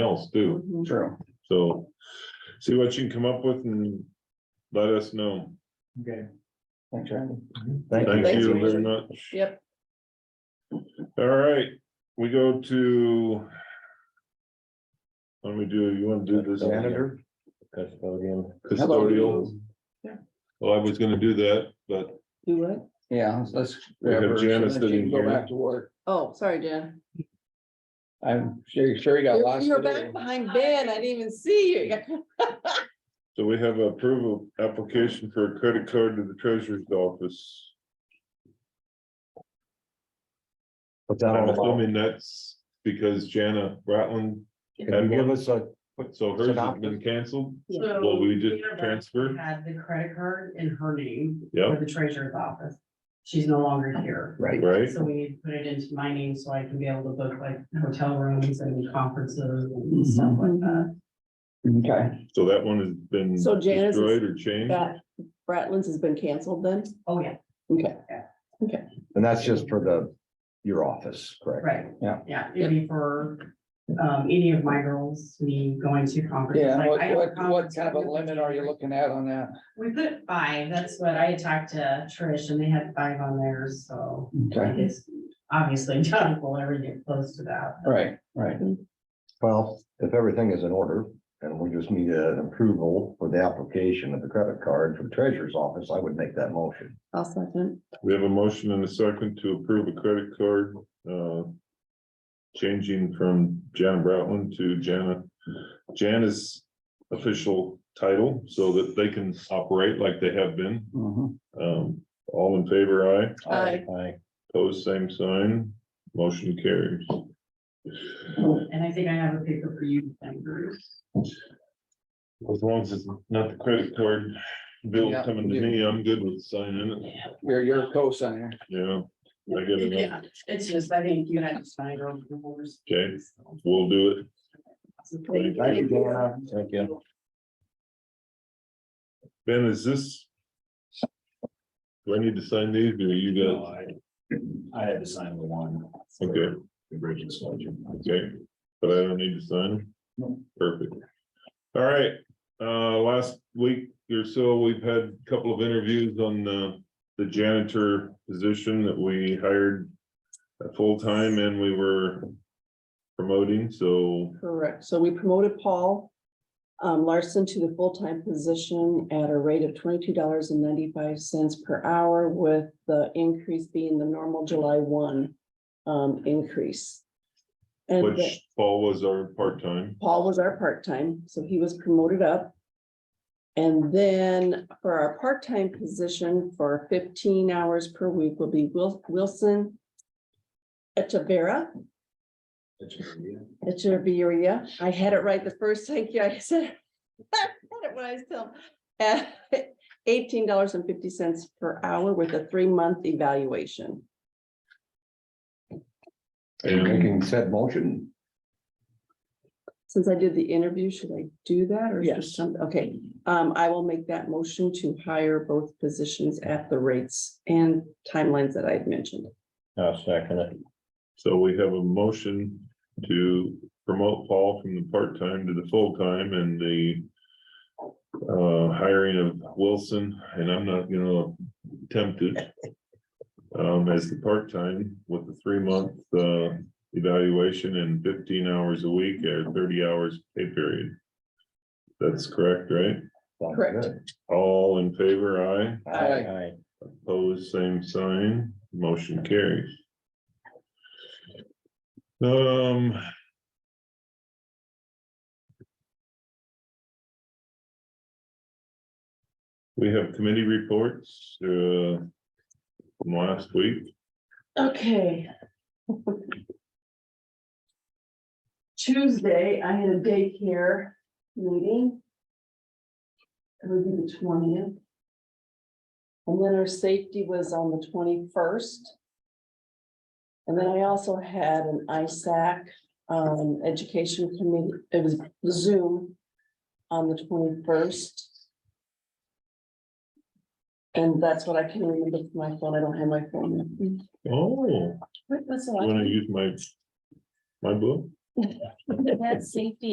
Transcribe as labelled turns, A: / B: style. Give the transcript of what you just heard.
A: else too,
B: Mhm.
C: True.
A: so see what you can come up with and let us know.
C: Okay. Thanks, Randy.
D: Mm-hmm.
A: Thank
B: Thanks,
A: you
B: Richard.
A: very much.
B: Yep,
A: All right, we go to. Let me do, you want to do this?
D: Janitor?
A: Custodial. Well, I was gonna do that, but
B: do what?
C: Yeah, let's.
A: We have
C: grab her so
A: Janice
C: that she
A: sitting
C: can Go
A: here.
C: back to work.
B: Oh, sorry, Jen.
C: I'm sure, sure you got
B: You're
C: lost
B: you're
C: today.
B: back behind Ben. I didn't even see you.
A: so we have approval application for a credit card to the treasurer's office.
D: What's that
A: I'm
D: all about?
A: assuming that's because Jana Ratland,
D: Can you give us a,
A: so hers has been canceled. Well, we just transferred.
E: Had the credit card in her name.
A: Yep.
E: For the treasurer's office. She's no longer here.
C: Right.
A: Right,
E: So we need to put it into my name so I can be able to book like hotel rooms and conferences and stuff
C: Mm-hmm.
E: like that.
C: Okay,
A: so that one has been
B: So Janice is
A: destroyed or changed.
B: That Bratlin's has been canceled then?
E: Oh, yeah,
B: Okay,
D: and that's just for the, your office, correct?
E: right.
C: Yeah.
E: Yeah, it'd be for um any of my girls, me going to conferences.
C: yeah,
E: Like,
C: what,
E: I have a
C: what, what
E: conference
C: kind of a
E: coming up in
C: limit are you
E: January.
C: looking at on that?
E: We put five, that's what I talked to Trish and they had five on theirs, so I
C: Okay,
E: guess obviously John will ever get close to that.
C: right, right.
D: Well, if everything is in order and we just need an approval for the application of the credit card for the treasurer's office, I would make that motion.
B: I'll second.
A: We have a motion and a second to approve a credit card, uh. Changing from Jan Broutman to Jana, Jana's official title so that they can operate like they have been.
C: Mhm.
A: Um, all in favor, aye.
B: Aye.
A: Pose same sign, motion carries.
E: Um, And I think I have a paper for you, Ben Bruce.
A: As long as it's not the credit card bill
C: Yeah.
A: coming to me, I'm good with signing it.
C: You're, you're a co-signer.
A: Yeah, I get it.
E: Yeah, It's just, I think you had to sign your own rules.
A: Okay. we'll do it.
B: Thank
D: Thank you,
B: you.
D: Dana. Thank you.
A: Ben, is this? Do I need to sign these or you got?
D: I had to sign the one.
A: Okay.
D: The bridge sledge.
A: Okay, but I don't need to sign them?
C: No.
A: Perfect. All right, uh, last week or so, we've had a couple of interviews on the, the janitor position that we hired. uh, Full-time and we were promoting, so
B: Correct. So we promoted Paul um, Larson to the full-time position at a rate of twenty-two dollars and ninety-five cents per hour with the increase being the normal July one um, increase. And the-
A: which Paul was our part-time.
B: Paul was our part-time, so he was promoted up. And then for our part-time position for fifteen hours per week will be Wil- Wilson. Echeverria. Echeverria. I had it right the first time, yeah, I said. I had it when I was still. at Eighteen dollars and fifty cents per hour with a three-month evaluation.
A: And
D: Making said motion.
B: Since I did the interview, should I do that or? is there
C: Yes.
B: some- Okay, um, I will make that motion to hire both positions at the rates and timelines that I've mentioned.
D: I'll second it.
A: so we have a motion to promote Paul from the part-time to the full-time and the. Uh, hiring of Wilson, and I'm not gonna attempt it. Um, as the part-time with the three-month, uh, evaluation and fifteen hours a week or thirty hours pay period. That's correct, right?
B: Correct.
A: All in favor, aye?
C: Aye.
A: Opposed, same sign, motion carries. Um. We have committee reports, uh, from last week.
E: Okay. Tuesday, I had a daycare
B: meeting. It would be the twentieth. And then our safety was on the twenty-first. And then I also had an ISAC, um, education committee, it was Zoom on the twenty-first. And that's what I can remember from my phone, I don't have my phone. with me.
A: Oh,
B: Wait, That's
A: wanna
B: all
A: use my, my book?
B: I. That's safety